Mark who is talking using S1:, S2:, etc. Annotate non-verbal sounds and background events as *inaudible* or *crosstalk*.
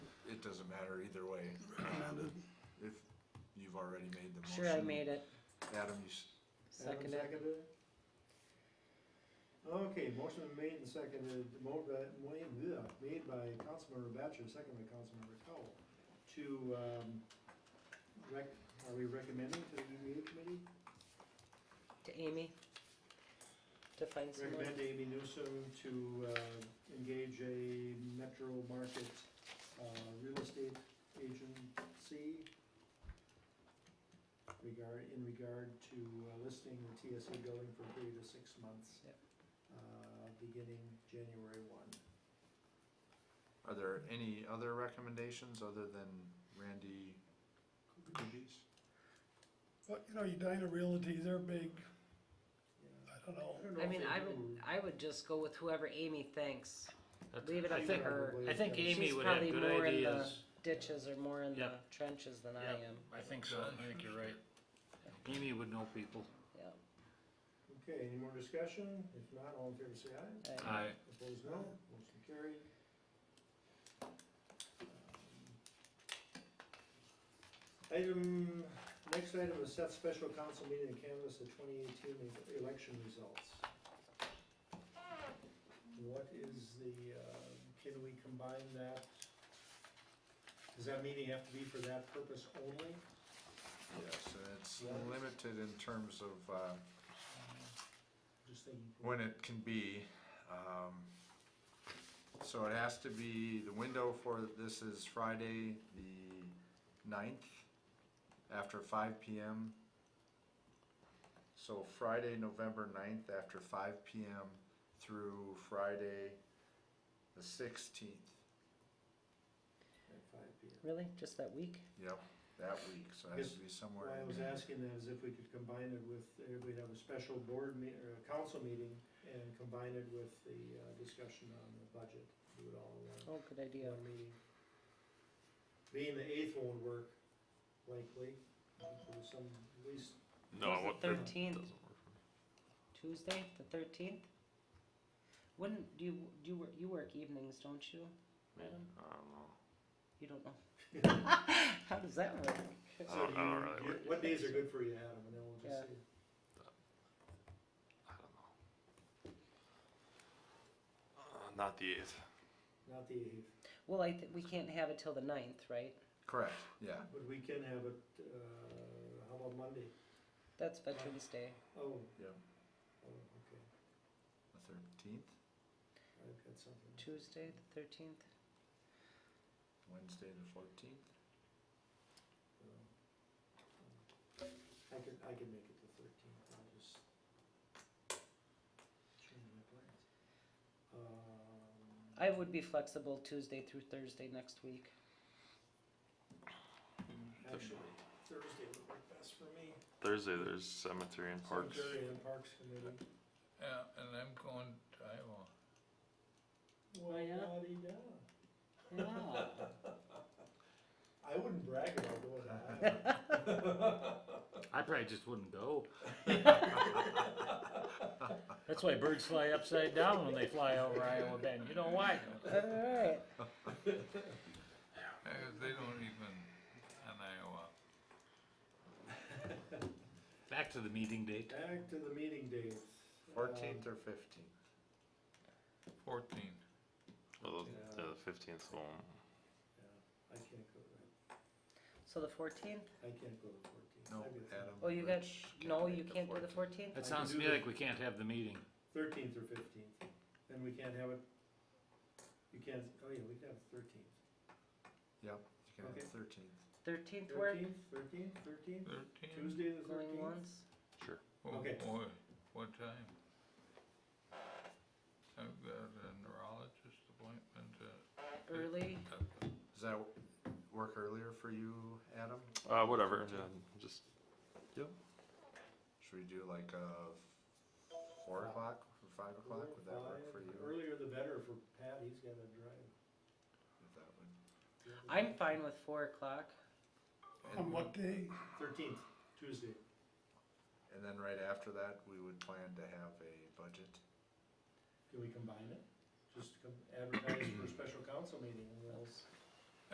S1: matter either way. Amanda, If you've already made the motion.
S2: Sure, I made it.
S1: Adam, you, s-
S3: Adam
S2: Seconded.
S3: seconded it? Okay, motion made and seconded, mo- uh, made bleh, made by Councilmember Batchor, second by Councilmember Cowell, to, um, rec, are we recommending to the EDA committee?
S2: To Amy. To find someone.
S3: Recommend Amy Newsom to, uh, engage a metro market, uh, real estate agency regard, in regard to uh, listing the TSA building for a period of six months.
S2: Yep.
S3: Uh, beginning January one.
S1: are there any other recommendations other than Randy Coogies?
S4: But, you know, Edina Realty, they're big, I don't know.
S3: don't know
S2: I
S3: if
S2: mean,
S3: they
S2: I
S3: do-
S2: would, I would just go with whoever Amy thinks.
S5: That's-
S2: Leave it
S5: I
S2: up to
S5: think-
S2: her.
S3: probably
S5: I think
S3: is-
S5: Amy
S2: She's
S5: would have
S2: probably
S5: good
S2: more in the-
S5: ideas.
S2: Ditches are more in the
S5: Yeah.
S2: trenches than I
S5: Yeah.
S2: am.
S5: I think so, I think you're right. Amy would know people.
S2: Yeah.
S3: Okay, any more discussion? If not, all in favor say aye.
S2: I-
S5: Aye.
S3: Opposed, no. Motion carried. Um, Item, next item is set special council meeting and canvass the twenty eighteen election results. What is the, uh, can we combine that? Does that meeting have to be for that purpose only?
S1: Yes, and it's
S3: Yeah.
S1: limited in terms of, uh,
S3: Just thinking.
S1: when it can be. Um, so it has to be, the window for this is Friday, the ninth, after five PM. So Friday, November ninth, after five PM through Friday, the sixteenth,
S3: At five P M.
S2: Really? Just that week?
S1: yep, that week, so it has to be somewhere.
S3: Why I
S1: in
S3: was
S1: there.
S3: asking that is if we could combine it with, uh, we'd have a special board meet, or a council meeting and combine it with the uh, discussion on the budget, do it all in one-
S2: Oh, good idea.
S3: one meeting. Being the eighth won't work likely, uh, for some, at least,
S6: No,
S2: It's the
S6: what, that
S2: Thirteenth,
S6: doesn't work.
S2: Tuesday, the thirteenth? Wouldn't, do you, do you, wor- you work evenings, don't you?
S6: I don't
S2: Madam?
S6: know.
S2: You don't know. How does that work?
S3: so
S6: I don't- I don't
S3: do
S6: really
S3: you,
S6: work
S3: what days are good for you, Adam, and then we'll just
S2: Yeah.
S3: see.
S6: I don't know. Uh, not the eighth.
S3: Not the eighth,
S2: Well, I, th- we can't have it till the ninth, right?
S1: Correct, yeah,
S3: but we can have it, uh, how about Monday?
S2: That's Veterans Day.
S3: Oh,
S1: yeah,
S3: oh, okay,
S1: the thirteenth,
S3: I've got something.
S2: Tuesday, the thirteenth?
S1: Wednesday, the fourteenth.
S3: Um, I could, I could make it the thirteenth, I'll just change my plans. Um,
S2: I would be flexible Tuesday through Thursday next week.
S3: Actually, Thursday would work best for me.
S6: Thursday, there's cemetery and parks.
S3: Cemetery and Parks Committee.
S7: Yeah, and I'm going to Iowa.
S2: Oh, yeah?
S3: Wa-di-da.
S2: Yeah.
S3: I wouldn't brag about going to Iowa.
S5: I probably just wouldn't go. That's why birds fly upside down when they fly over Iowa Bend, you know why?
S2: *laughs* Alright,
S7: Uh, They don't even, in Iowa.
S5: Back to the meeting date.
S3: Back to the meeting dates.
S1: Fourteenth
S3: Um,
S1: or fifteenth?
S7: Fourteen.
S6: Well,
S3: Yeah.
S6: the, the fifteenth one.
S3: yeah, I can't go, to-
S2: so the fourteenth?
S3: I can't go to fourteenth.
S1: No, Adam.
S2: Oh, you got,
S1: Rich
S2: no,
S1: make the
S2: you can't do the
S1: 14th.
S2: fourteenth?
S5: That sounds to me like we can't have the meeting.
S3: Thirteenth or fifteenth, and we can't have it, you can't, oh yeah, we can have thirteenth.
S1: Yep, you can
S3: Okay.
S1: have thirteenth.
S2: Thirteenth work,
S3: Thirteenth, thirteenth, thirteenth,
S7: Thirteen?
S3: Tuesday the
S2: going
S3: thirteenth.
S2: once?
S7: Oh
S3: Okay.
S7: boy, what time? I've got a neurologist appointment at,
S2: Early,
S7: at
S1: Does that w- work earlier for you, Adam?
S6: Uh, whatever. Yeah, just
S1: Should we do like uh four
S3: Five.
S1: o'clock or five o'clock? Would that work for you?
S3: Earlier the better for Pat, he's gotta drive.
S1: If that would-
S2: I'm fine with four o'clock.
S4: On what day?
S3: Thirteenth, Tuesday,
S1: And then right after that, we would plan to have a budget.
S3: can we combine it? Just com- advertise for a special council meeting and we'll